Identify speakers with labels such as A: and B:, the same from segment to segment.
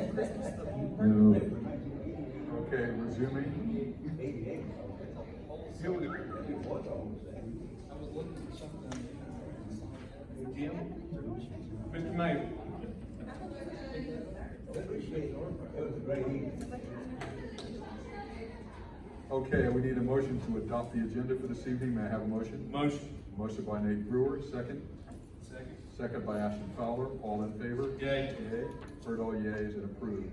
A: No. Okay, resuming. Here we go.
B: Mr. Mayor,
A: Okay, we need a motion to adopt the agenda for this evening. May I have a motion?
B: motion.
A: Motion by Nate Brewer, second.
B: Second.
A: Second by Ashton Fowler. All in favor?
B: Yay.
A: Yay. Heard all yeas and approved.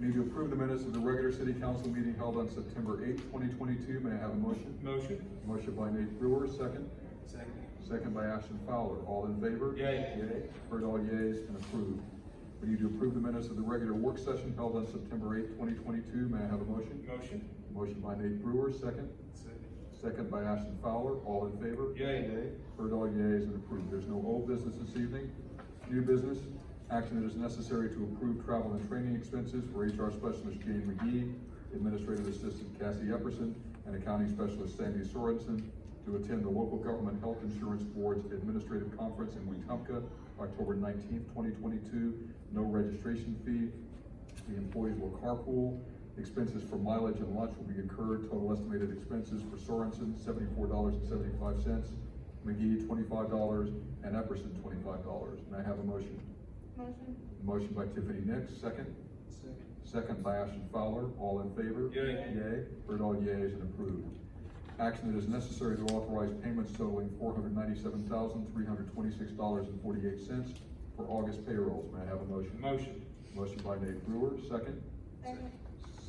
A: Need to approve the minutes of the regular city council meeting held on September eighth, twenty twenty-two. May I have a motion?
B: Motion.
A: Motion by Nate Brewer, second.
B: Second.
A: Second by Ashton Fowler, all in favor?
B: Yea.
A: Yea. Heard all yeas and approved. We need to approve the minutes of the regular work session held on September eighth, twenty twenty-two, may I have a motion?
B: Motion.
A: Motion by Nate Brewer, second.
B: Second.
A: Second by Ashton Fowler, all in favor?
B: Yea.
A: Heard all yeas and approved. There's no old business this evening. New business, action that is necessary to approve travel and training expenses for HR specialist Jane McGee, administrative assistant Cassie Epperson, and accounting specialist Sandy Sorensen to attend the local government health insurance board's administrative conference in Wetumpka, October nineteenth, twenty twenty-two. No registration fee. The employees will carpool. Expenses for mileage and lunch will be incurred. Total estimated expenses for Sorensen, seventy-four dollars and seventy-five cents. McGee, twenty-five dollars, and Epperson, twenty-five dollars. May I have a motion?
C: Motion.
A: Motion by Tiffany Nix, second. Second by Ashton Fowler, all in favor?
B: Yea.
A: Yea, heard all yeas and approved. Action that is necessary to authorize payments totaling four hundred ninety-seven thousand, three hundred twenty-six dollars and forty-eight cents for August payrolls. May I have a motion?
B: Motion.
A: Motion by Nate Brewer, second.
C: Second.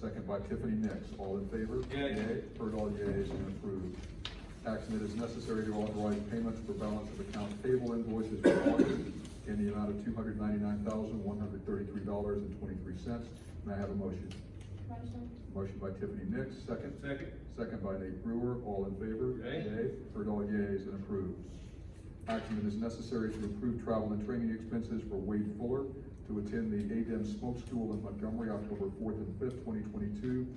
A: Second by Tiffany Nix, all in favor?
B: Yea.
A: Heard all yeas and approved. Action that is necessary to authorize payments for balance of account payable invoices for August in the amount of two hundred ninety-nine thousand, one hundred thirty-three dollars and twenty-three cents. May I have a motion?
C: Motion.
A: Motion by Tiffany Nix, second.
B: Second.
A: Second by Nate Brewer, all in favor?
B: Yea.
A: Heard all yeas and approved. Action that is necessary to approve travel and training expenses for Wade Fuller to attend the ADEM Smoke School in Montgomery, October fourth and fifth, twenty twenty-two.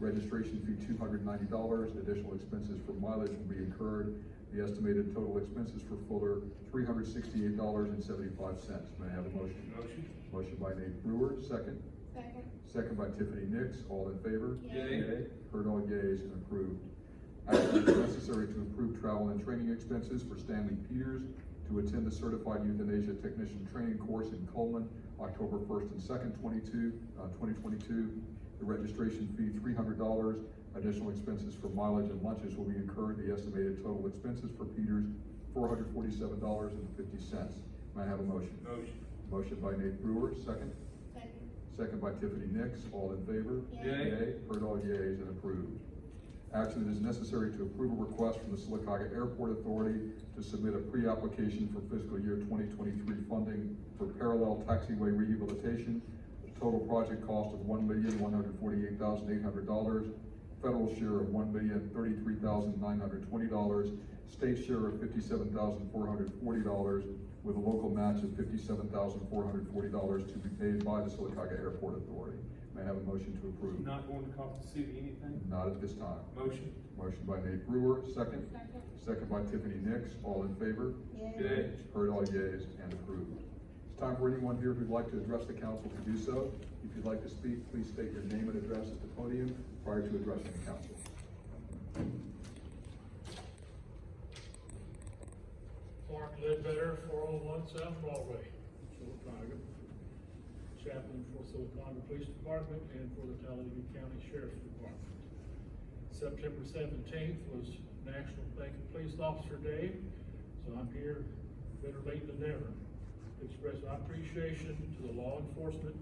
A: Registration fee two hundred ninety dollars, additional expenses for mileage will be incurred. The estimated total expenses for Fuller, three hundred sixty-eight dollars and seventy-five cents. May I have a motion?
B: Motion.
A: Motion by Nate Brewer, second.
C: Second.
A: Second by Tiffany Nix, all in favor?
B: Yea.
A: Yea. Heard all yeas and approved. Action is necessary to approve travel and training expenses for Stanley Peters to attend the Certified Euthanasia Technician Training Course in Coleman, October first and second, twenty-two, uh, twenty twenty-two. The registration fee, three hundred dollars. Additional expenses for mileage and lunches will be incurred. The estimated total expenses for Peters, four hundred forty-seven dollars and fifty cents. May I have a motion?
B: Motion.
A: Motion by Nate Brewer, second.
C: Second.
A: Second by Tiffany Nix, all in favor?
C: Yea.
B: Yea.
A: Heard all yeas and approved. Action that is necessary to approve a request from the Silicaca Airport Authority to submit a pre-application for fiscal year twenty twenty-three funding for parallel taxiway rehabilitation. Total project cost of one million, one hundred forty-eight thousand, eight hundred dollars. Federal share of one million, thirty-three thousand, nine hundred twenty dollars. State share of fifty-seven thousand, four hundred forty dollars with a local match of fifty-seven thousand, four hundred forty dollars to be paid by the Silicaca Airport Authority. May I have a motion to approve?
B: Not going to cost the city anything.
A: Not at this time.
B: Motion.
A: Motion by Nate Brewer, second.
C: Second.
A: Second by Tiffany Nix, all in favor?
B: Yea.
A: Heard all yeas and approved. It's time for anyone here who'd like to address the council to do so. If you'd like to speak, please state your name and address at the podium prior to addressing the council.
D: Mark Ledbetter, four oh one South Broadway, Silicotta. Chaplain for Silicotta Police Department and for the Talladega County Sheriff's Department. September seventeenth was National Bank and Police Officer Day, so I'm here better late than never. to Express my appreciation to the law enforcement